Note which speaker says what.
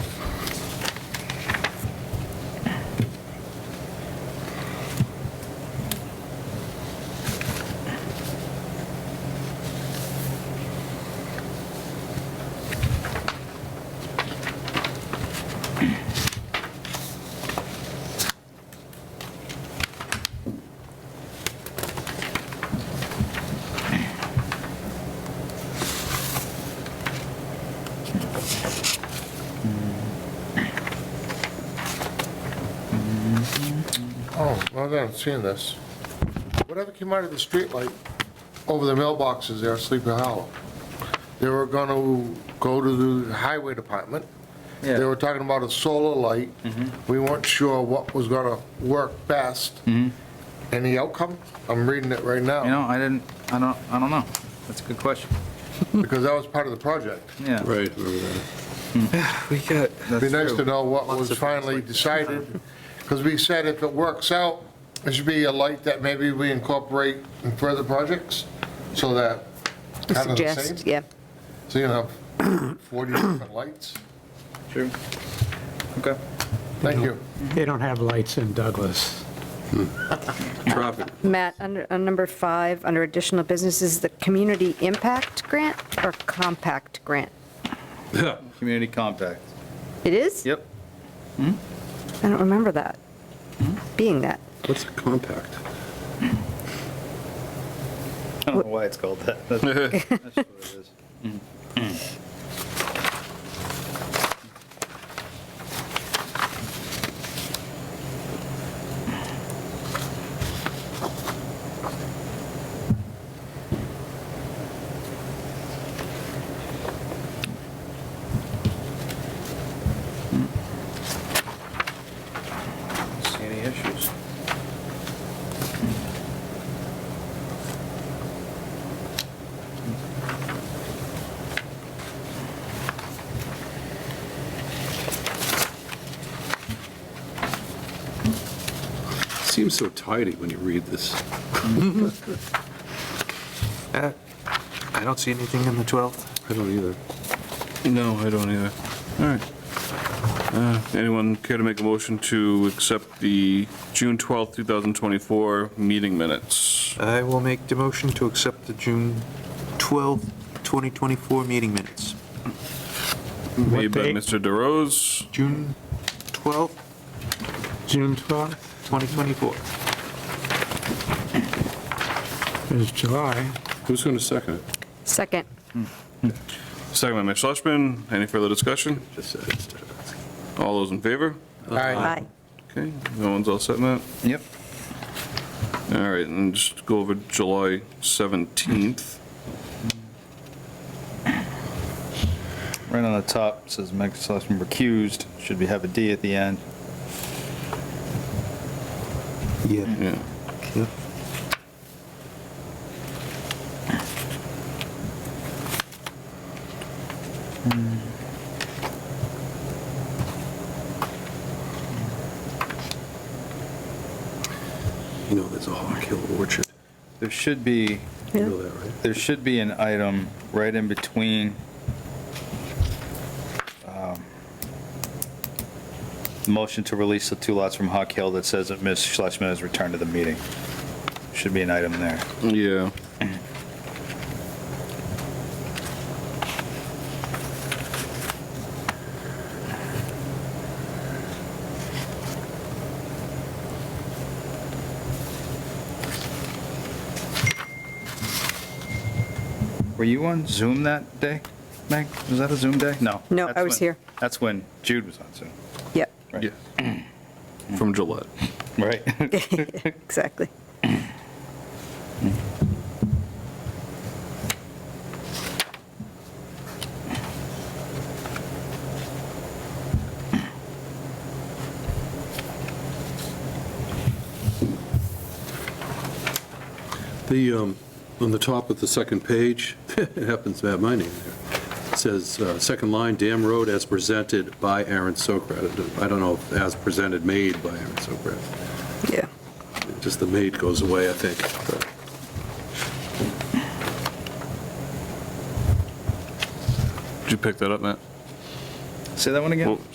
Speaker 1: Oh, well, I haven't seen this. Whatever came out of the streetlight over the mailboxes there at Sleepy Hollow, they were gonna go to the highway department.
Speaker 2: Yeah.
Speaker 1: They were talking about a solar light. We weren't sure what was gonna work best. And the outcome, I'm reading it right
Speaker 2: You
Speaker 1: now,
Speaker 2: know, I didn't, I don't, I don't know. That's a good question.
Speaker 1: because that was part of the project.
Speaker 2: Yeah.
Speaker 3: Right, remember that.
Speaker 2: We got.
Speaker 1: Be nice to know what was finally decided, because we said if it works out, it should be a light that maybe we incorporate in further projects, so that. kind of the same.
Speaker 4: Suggest, yeah.
Speaker 1: So you have 40 different lights.
Speaker 2: True. Okay.
Speaker 1: Thank you.
Speaker 5: They don't have lights in Douglas.
Speaker 3: Traffic,
Speaker 4: Matt, under, on number five, under additional businesses, the community impact grant or compact grant?
Speaker 3: yeah,
Speaker 2: Community compact.
Speaker 4: It is?
Speaker 2: Yep.
Speaker 4: I don't remember that, being that.
Speaker 3: what's a compact?
Speaker 2: I don't know why it's called that. That's that's just what it is. See any issues?
Speaker 3: Seems so tidy when you read this.
Speaker 6: Uh, I don't see anything on the 12th.
Speaker 3: I don't either. No, I don't either. All right. Uh, Anyone care to make a motion to accept the June 12th, 2024 meeting minutes?
Speaker 6: I will make the motion to accept the June 12th, 2024 meeting minutes.
Speaker 3: Made by
Speaker 5: date?
Speaker 3: Mr. DeRose,
Speaker 6: June 12th,
Speaker 5: June 12th
Speaker 6: 2024.
Speaker 5: is July.
Speaker 3: Who's going to second it?
Speaker 4: Second,
Speaker 3: Second by Mitch Schlesman. Any further discussion? All those in favor?
Speaker 4: aye.
Speaker 3: Okay, no one's all set, Matt?
Speaker 2: Yep.
Speaker 3: All right, and just go over July 17th.
Speaker 2: Right on the top says Meg Schlesman recused, should be have a D at the end.
Speaker 6: Yeah.
Speaker 3: Yeah.
Speaker 6: yeah.
Speaker 7: You know, there's a Hawk Hill Orchard,
Speaker 2: There should be,
Speaker 7: you know that, right?
Speaker 2: there should be an item right in between um, motion to release the two lots from Hawk Hill that says that Ms. Schlesman has returned to the meeting. Should be an item there.
Speaker 3: Yeah.
Speaker 2: Were you on Zoom that day, Meg? Was that a Zoom day? No.
Speaker 4: No,
Speaker 2: That's
Speaker 4: I was
Speaker 2: when-
Speaker 4: here.
Speaker 2: That's when Jude was on Zoom.
Speaker 4: Yep,
Speaker 3: Yeah. From Gillette.
Speaker 2: Right.
Speaker 4: exactly.
Speaker 7: The, um, on the top of the second page, it happens to have my name there. It Says, uh, second line, Dam Road as presented by Aaron Sokrat. I don't know if as presented made by Aaron Sokrat.
Speaker 4: Yeah.
Speaker 7: Just the made goes away, I think. but-
Speaker 3: Did you pick that up, Matt?
Speaker 2: Say that one again?
Speaker 3: Well,